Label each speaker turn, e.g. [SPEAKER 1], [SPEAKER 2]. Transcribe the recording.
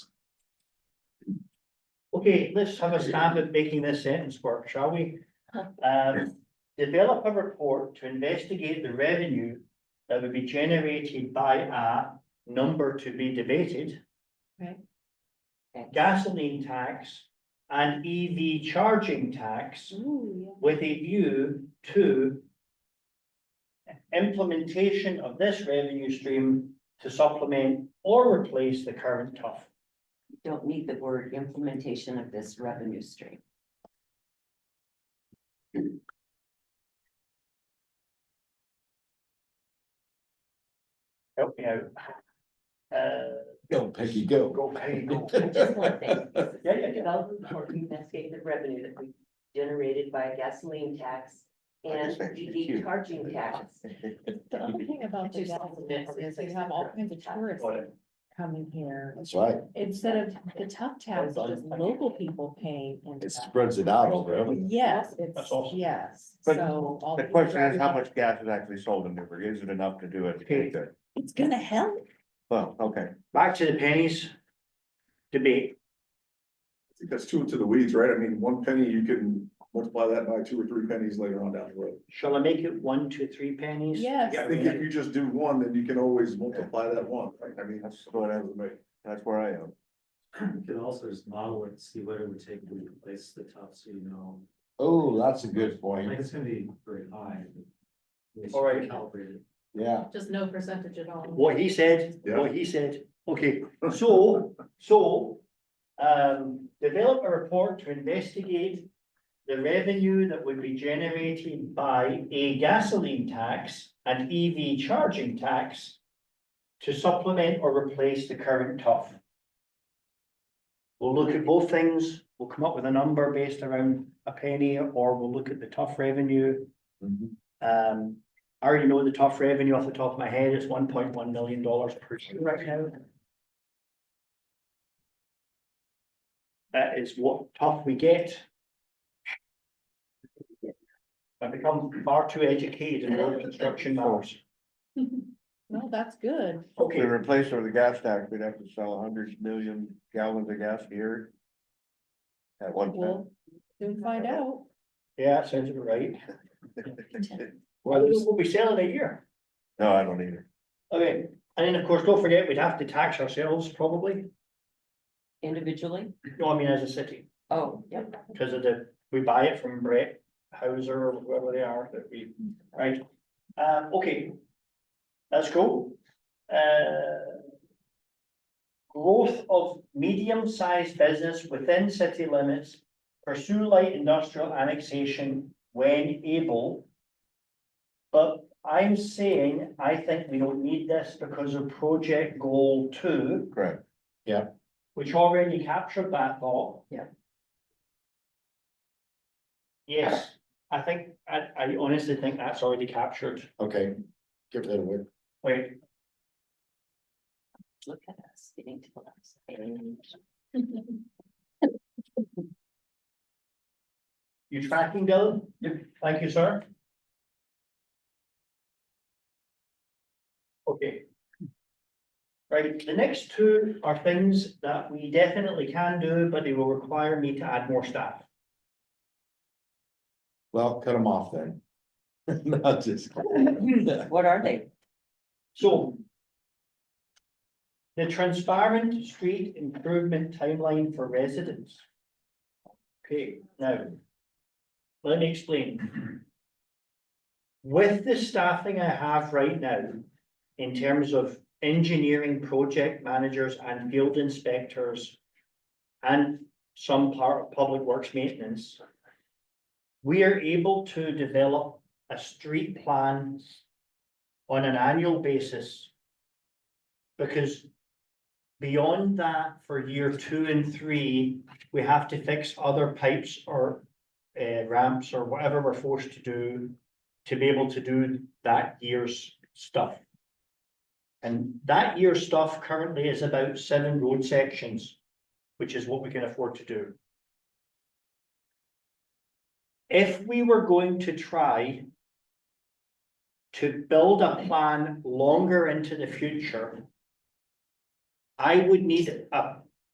[SPEAKER 1] Okay, let's have a stab at making this sentence work, shall we? Um, develop a report to investigate the revenue that would be generated by a number to be debated.
[SPEAKER 2] Right.
[SPEAKER 1] Gasoline tax and EV charging tax
[SPEAKER 2] Ooh,
[SPEAKER 1] with a view to implementation of this revenue stream to supplement or replace the current TUF.
[SPEAKER 3] You Don't need the word implementation of this revenue stream.
[SPEAKER 1] Help me out. Uh,
[SPEAKER 4] Go, Peggy, go.
[SPEAKER 1] go, Penny, go.
[SPEAKER 3] Just one thing.
[SPEAKER 1] Yeah, yeah, yeah.
[SPEAKER 3] Develop a report to investigate the revenue that we generated by gasoline tax and EV charging tax.
[SPEAKER 2] the other thing about the
[SPEAKER 3] Which is-
[SPEAKER 2] Dallas is you have all kinds of tourists
[SPEAKER 1] Got it.
[SPEAKER 2] coming here.
[SPEAKER 4] That's right.
[SPEAKER 2] Instead of the tough tax, just local people paying. into
[SPEAKER 4] It
[SPEAKER 2] that.
[SPEAKER 4] spreads it out over everything.
[SPEAKER 2] Yes, it's,
[SPEAKER 1] That's awesome.
[SPEAKER 2] yes,
[SPEAKER 5] But
[SPEAKER 2] so. all
[SPEAKER 5] The
[SPEAKER 2] these
[SPEAKER 5] question is, how
[SPEAKER 2] revenue-
[SPEAKER 5] much gas is actually sold in Newburgh? Is it enough to do it?
[SPEAKER 1] Okay.
[SPEAKER 5] Good.
[SPEAKER 2] It's gonna help.
[SPEAKER 5] Well, okay.
[SPEAKER 1] Back to the pennies. Debate.
[SPEAKER 6] I think that's too into the weeds, right? I mean, one penny, you can multiply that by two or three pennies later on down the road.
[SPEAKER 1] Shall I make it one, two, three pennies?
[SPEAKER 2] Yes.
[SPEAKER 6] I think if you just do one, then you can always multiply that one, right? I mean, that's
[SPEAKER 5] That's
[SPEAKER 6] what
[SPEAKER 5] what
[SPEAKER 6] I
[SPEAKER 5] I
[SPEAKER 6] would make.
[SPEAKER 5] That's where I am.
[SPEAKER 7] You could also just model it, see what it would take to replace the top, so you know,
[SPEAKER 4] Oh, that's a good
[SPEAKER 7] like,
[SPEAKER 4] point.
[SPEAKER 7] it's gonna be very high. but we should
[SPEAKER 1] All right.
[SPEAKER 7] Calibrate it.
[SPEAKER 4] Yeah,
[SPEAKER 2] Just no percentage at all.
[SPEAKER 1] What he said, what he said. Okay, so, so, um, develop a report to investigate the revenue that would be generated by a gasoline tax and EV charging tax to supplement or replace the current TUF. We'll look at both things. We'll come up with a number based around a penny, or we'll look at the TUF revenue.
[SPEAKER 4] Mhm.
[SPEAKER 1] Um, I already know the tough revenue off the top of my head, it's one point one million dollars per year right now. That is what tough we get. I become far too educated in road construction matters.
[SPEAKER 2] No, that's good.
[SPEAKER 5] If we
[SPEAKER 1] Okay,
[SPEAKER 5] replace it with a gas tax, we'd have to sell hundred million gallons of gas a year. At one time.
[SPEAKER 2] We'll soon find out.
[SPEAKER 1] yeah, that sounds about right. Well, we'll be selling a year.
[SPEAKER 5] No, I don't either.
[SPEAKER 1] Okay, and then of course, don't forget, we'd have to tax ourselves probably,
[SPEAKER 3] Individually?
[SPEAKER 1] no, I mean as a city,
[SPEAKER 3] Oh, yep.
[SPEAKER 1] because of the, we buy it from Brett Hauser or whoever they are that we, right? Um, okay. That's cool. Uh. Growth of medium-sized business within city limits, pursue light industrial annexation when able. But I'm saying, I think we don't need this because of project goal two.
[SPEAKER 5] Correct.
[SPEAKER 4] Yeah.
[SPEAKER 1] Which already captured that thought.
[SPEAKER 3] Yeah.
[SPEAKER 1] Yes, I think, I, I honestly think that's already captured.
[SPEAKER 4] okay. Give that away.
[SPEAKER 1] Wait,
[SPEAKER 3] Look at us getting to the last page.
[SPEAKER 1] You tracking, Dylan? Yep. Thank you, sir. Okay. Right, the next two are things that we definitely can do, but they will require me to add more staff.
[SPEAKER 4] Well, cut them off then. Not just. kidding.
[SPEAKER 3] What are they?
[SPEAKER 1] So. The transparent street improvement timeline for residents. Okay, now. Let me explain. With the staffing I have right now, in terms of engineering project managers and field inspectors. And some part of public works maintenance. We are able to develop a street plan on an annual basis. Because beyond that, for year two and three, we have to fix other pipes or uh, ramps or whatever we're forced to do to be able to do that year's stuff. And that year's stuff currently is about seven road sections, which is what we can afford to do. If we were going to try to build a plan longer into the future, I would need a